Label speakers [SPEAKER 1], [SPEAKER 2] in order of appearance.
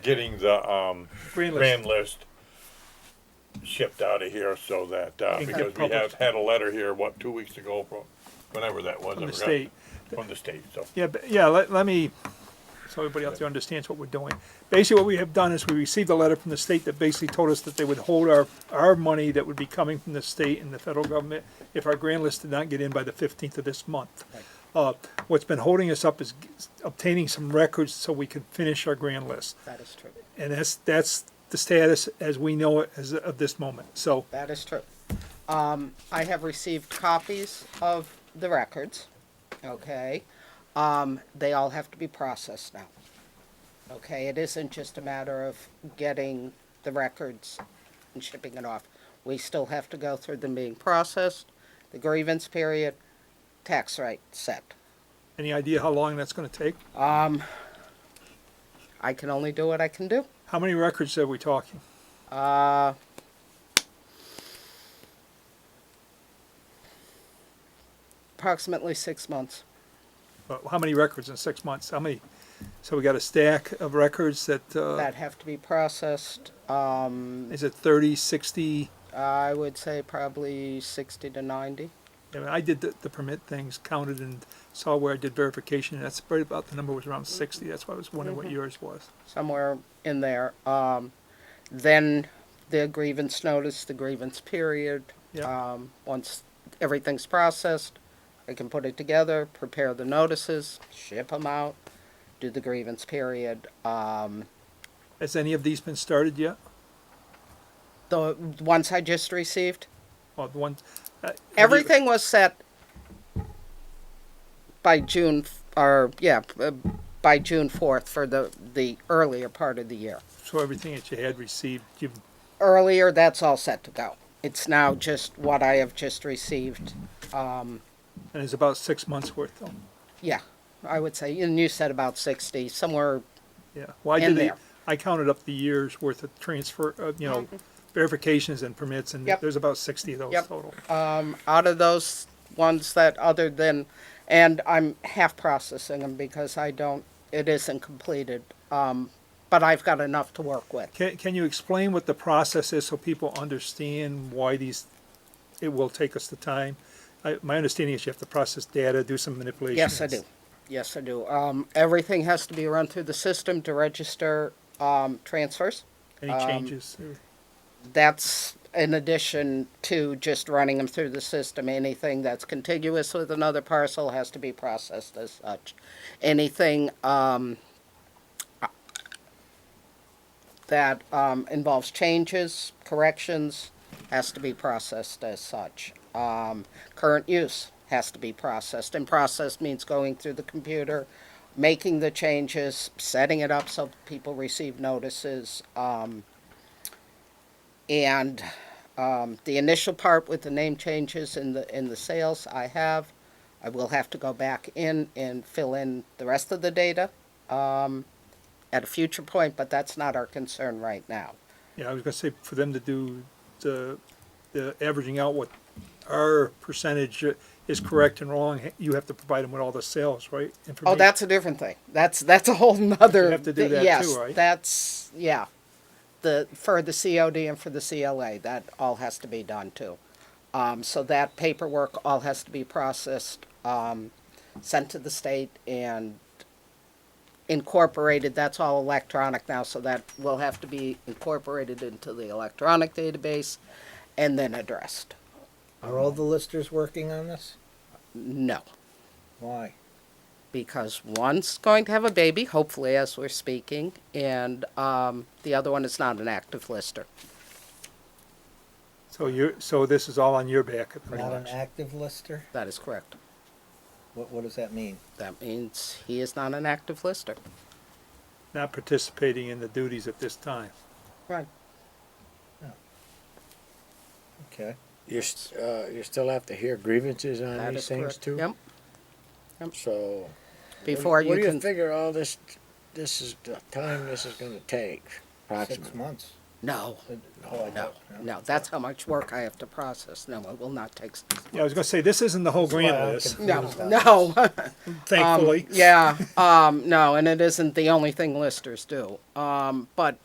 [SPEAKER 1] getting the um,
[SPEAKER 2] Grand list.
[SPEAKER 1] grand list shipped out of here so that, uh,
[SPEAKER 2] And get
[SPEAKER 1] because we have
[SPEAKER 2] published.
[SPEAKER 1] had a letter here, what, two weeks ago from, whenever that was.
[SPEAKER 2] From
[SPEAKER 1] I
[SPEAKER 2] the
[SPEAKER 1] forgot.
[SPEAKER 2] state.
[SPEAKER 1] From the state, so.
[SPEAKER 2] Yeah, but, yeah, let, let me, so everybody out there understands what we're doing. Basically, what we have done is we received a letter from the state that basically told us that they would hold our, our money that would be coming from the state and the federal government if our grand list did not get in by the fifteenth of this month. Uh, what's been holding us up is g- obtaining some records so we can finish our grand list.
[SPEAKER 3] That is true.
[SPEAKER 2] And that's, that's the status as we know it as of this moment. So,
[SPEAKER 3] That is true. Um, I have received copies of the records, okay? Um, they all have to be processed now. Okay, it isn't just a matter of getting the records and shipping it off. We still have to go through them being processed, the grievance period, tax rate set. Um,
[SPEAKER 2] any idea how long that's gonna take?
[SPEAKER 3] I can only do what I can do.
[SPEAKER 2] How many records are we talking?
[SPEAKER 3] Uh, approximately six months.
[SPEAKER 2] But how many records in six months? How many? So we got a stack of records that, uh,
[SPEAKER 3] that have to be processed. Um,
[SPEAKER 2] is it thirty, sixty?
[SPEAKER 3] I would say probably 60 to 90.
[SPEAKER 2] I mean, I did the, the permit things, counted and saw where I did verification, and that's right about, the number was
[SPEAKER 3] Mm-hmm.
[SPEAKER 2] around sixty, that's why I was wondering what yours was.
[SPEAKER 3] somewhere in there. Um, then the grievance notice, the grievance period.
[SPEAKER 2] Yep.
[SPEAKER 3] Um, once everything's processed, I can put it together, prepare the notices, ship them out, do the grievance period. Um,
[SPEAKER 2] Has any of these been started yet?
[SPEAKER 3] the ones I just received,
[SPEAKER 2] Or the one? uh, have you-
[SPEAKER 3] everything was set by June, f- or yeah, uh, by June fourth for the the earlier part of the year.
[SPEAKER 2] So everything that you had received, you've,
[SPEAKER 3] earlier, that's all set to go. It's now just what I have just received. Um,
[SPEAKER 2] and it's about six months worth though,
[SPEAKER 3] yeah, I would say, and you said about sixty, somewhere,
[SPEAKER 2] yeah. Well, I did
[SPEAKER 3] In
[SPEAKER 2] the,
[SPEAKER 3] there. Mm-hmm.
[SPEAKER 2] I counted up the years worth of transfer, uh, you know, verifications and permits, and
[SPEAKER 3] Yep.
[SPEAKER 2] there's about sixty of those
[SPEAKER 3] Yep.
[SPEAKER 2] total.
[SPEAKER 3] um, out of those ones that other than, and I'm half processing them because I don't, it isn't completed. Um, but I've got enough to work with.
[SPEAKER 2] Can, can you explain what the process is so people understand why these, it will take us the time? I, my understanding is you have to process data, do some manipulation.
[SPEAKER 3] Yes, I do. Yes, I do. Um, everything has to be run through the system to register, um, transfers.
[SPEAKER 2] Any
[SPEAKER 3] Um,
[SPEAKER 2] changes?
[SPEAKER 3] that's in addition to just running them through the system. Anything that's contiguous with another parcel has to be processed as such. Anything um, that um, involves changes, corrections, has to be processed as such. Um, current use has to be processed, and processed means going through the computer, making the changes, setting it up so people receive notices. Um, and um, the initial part with the name changes in the, in the sales I have, I will have to go back in and fill in the rest of the data um, at a future point, but that's not our concern right now.
[SPEAKER 2] Yeah, I was gonna say for them to do the, the averaging out what our percentage is correct and wrong, you have to provide them with all the sales, right?
[SPEAKER 3] Oh,
[SPEAKER 2] information?
[SPEAKER 3] that's a different thing. That's, that's a whole nother.
[SPEAKER 2] have to do that
[SPEAKER 3] Yes,
[SPEAKER 2] too, right?
[SPEAKER 3] that's, yeah. The, for the COD and for the CLA, that all has to be done too. Um, so that paperwork all has to be processed, um, sent to the state and incorporated, that's all electronic now, so that will have to be incorporated into the electronic database and then addressed.
[SPEAKER 4] Are all the listers working on this?
[SPEAKER 3] No.
[SPEAKER 4] Why?
[SPEAKER 3] because one's going to have a baby, hopefully, as we're speaking, and um, the other one is not an active lister.
[SPEAKER 2] So you're, so this is all on your back at the
[SPEAKER 4] Not an
[SPEAKER 2] moment?
[SPEAKER 4] active lister?
[SPEAKER 3] That is correct.
[SPEAKER 4] What, what does that mean?
[SPEAKER 3] That means he is not an active lister.
[SPEAKER 2] Not participating in the duties at this time?
[SPEAKER 3] Right.
[SPEAKER 4] Okay.
[SPEAKER 5] You, st- uh, you still have to hear grievances on
[SPEAKER 3] That
[SPEAKER 5] these
[SPEAKER 3] is
[SPEAKER 5] things
[SPEAKER 3] correct.
[SPEAKER 5] too?
[SPEAKER 3] Yep.
[SPEAKER 5] So.
[SPEAKER 3] Before
[SPEAKER 5] what,
[SPEAKER 3] you
[SPEAKER 5] do you
[SPEAKER 3] can,
[SPEAKER 5] figure all this, this is the time this is gonna take
[SPEAKER 4] Six
[SPEAKER 5] approximately?
[SPEAKER 4] months.
[SPEAKER 3] No,
[SPEAKER 4] Oh,
[SPEAKER 3] no,
[SPEAKER 4] I don't.
[SPEAKER 3] no, that's how much work I have to process. No, it will not take, s-
[SPEAKER 2] Yeah, I was gonna say, this isn't the whole grant
[SPEAKER 4] Well,
[SPEAKER 2] list,
[SPEAKER 4] okay.
[SPEAKER 3] no,
[SPEAKER 4] Who's that?
[SPEAKER 3] no. Um,
[SPEAKER 2] thankfully.
[SPEAKER 3] Yeah, um, no, and it isn't the only thing listers do. Um, but